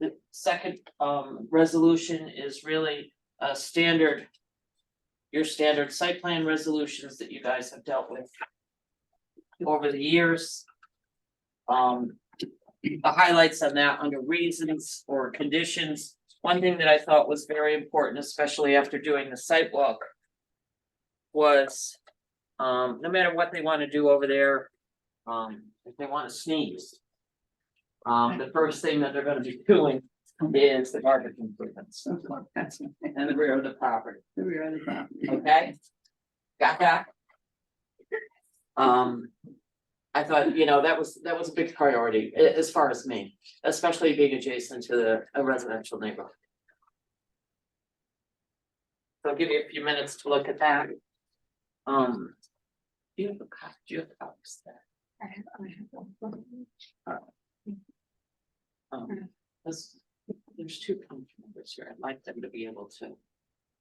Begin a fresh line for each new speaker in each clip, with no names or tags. The second um resolution is really a standard. Your standard site plan resolutions that you guys have dealt with. Over the years. Um, the highlights on that under reasons or conditions. One thing that I thought was very important, especially after doing the site walk. Was, um, no matter what they wanna do over there, um, if they wanna sneeze. Um, the first thing that they're gonna be doing is the garbage improvements
So far, that's the
and the rear of the property,
rear of the property.
okay? Got that? Um, I thought, you know, that was, that was a big priority a- as far as me, especially being adjacent to the a residential neighborhood. So I'll give you a few minutes to look at that. Um. Do you have a cop, do you have copies there?
I have- I have one. Mm.
Um, this, there's two council members here, I'd like them to be able to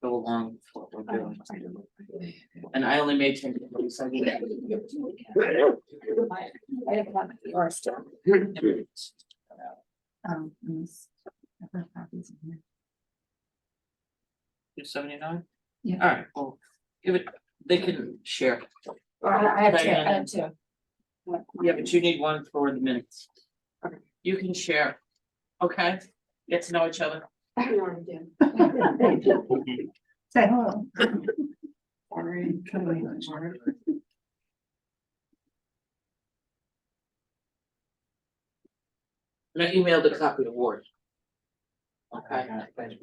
go along with what we're doing.
I don't know.
And I only made ten, so I need that.
I have one of yours still. Um, yes. I've got copies in here.
Two seventy-nine?
Yeah.
All right, well, give it, they can share.
I have two, I have two.
Yeah, but you need one for the minutes.
Okay.
You can share, okay? Get to know each other.
I don't want to do. Say hello. Sorry.
And I emailed a copy to Ward. Okay, all right.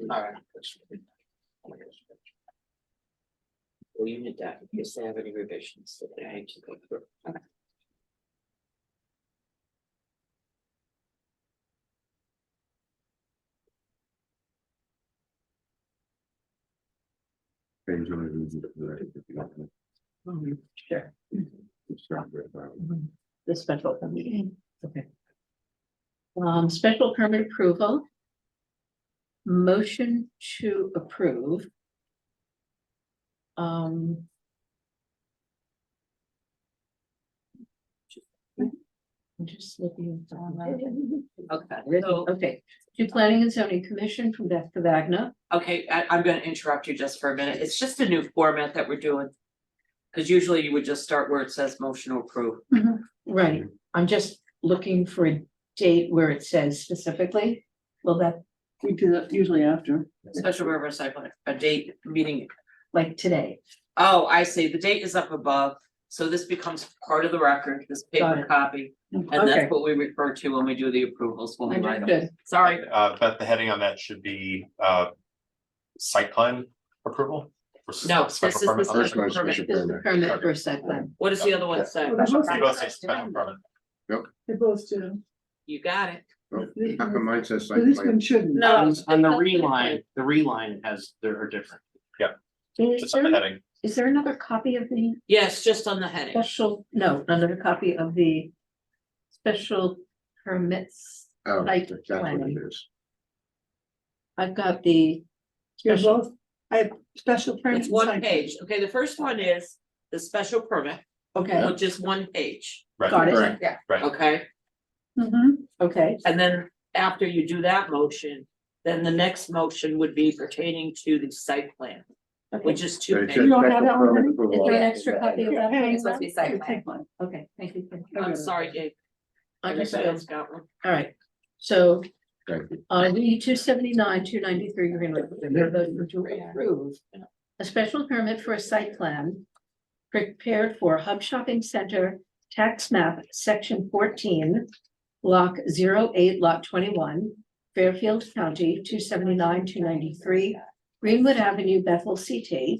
Well, you need that, in case they have any revisions that they need to go through.
Things really easy to do, right, if you don't know.
Sure.
It's not very hard.
the special permit. Okay. Um, special permit approval. Motion to approve. Um. I'm just looking. down that.
Okay, so,
Okay, to planning and zoning commission from Beth Cavagna.
okay, I, I'm gonna interrupt you just for a minute. It's just a new format that we're doing. Cause usually you would just start where it says motion to approve.
Right, I'm just looking for a date where it says specifically. Will that,
We do that usually after.
Special river recycling, a date, meeting.
like today?
Oh, I see. The date is up above. So this becomes part of the record, this
Got
paper
it.
copy. And
Okay.
that's what we refer to when we do the approvals, when we write them.
Understood.
Sorry,
Uh, but the heading on that should be, uh, site plan approval? for s-
No, this
special
is the
permit.
special
Otherwise,
permit.
Special
This is the
permit.
permit for site plan.
what does the other one say?
You both say special permit.
They're both students.
You got it.
Oh, How come mine says
But
site
this
plan?
one shouldn't.
No.
On the reline, the reline has, there are different.
Is
Just on the
there,
heading.
is there another copy of the
Yes, just on the heading.
special, no, another copy of the special permits?
Oh,
site
that's what
plan.
it is.
I've got the,
You're
Special.
both, I have special permit.
It's one page. Okay, the first one is the special permit,
okay,
which is one page,
got it,
Correct.
Yeah.
okay?
Mm-hmm.
okay,
And then after you do that motion, then the next motion would be pertaining to the site plan,
okay,
which is
It
two
says
pages.
You don't have
special
that one,
permit
honey?
approval.
Is there an extra copy of that?
It's
It's
supposed to be site
okay, thank you. thank you.
I'm sorry, Dave. Everybody
Understood,
else got one?
all right, so,
Thank you.
uh, we two seventy-nine, two ninety-three, you're gonna, you're going to approve. A special permit for a site plan prepared for Hub Shopping Center tax map, section fourteen. Block 08, lot twenty-one, Fairfield County, two seventy-nine, two ninety-three, Greenwood Avenue, Bethel, CT,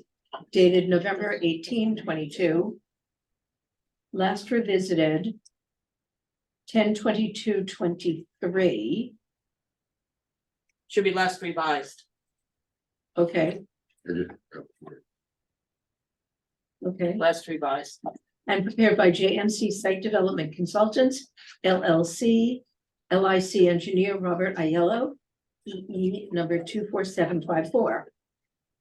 dated November 18, 22. Last revisited 10-22-23.
Should be last revised.
okay,
It is- oh,
okay.
Last revised.
And prepared by JMC Site Development Consultants, LLC, LIC engineer Robert Aiello, EE number two four seven five four.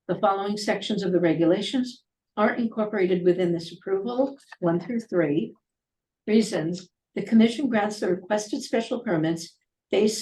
The following sections of the regulations are incorporated within this approval, one through three. Reasons, the commission grants the requested special permits based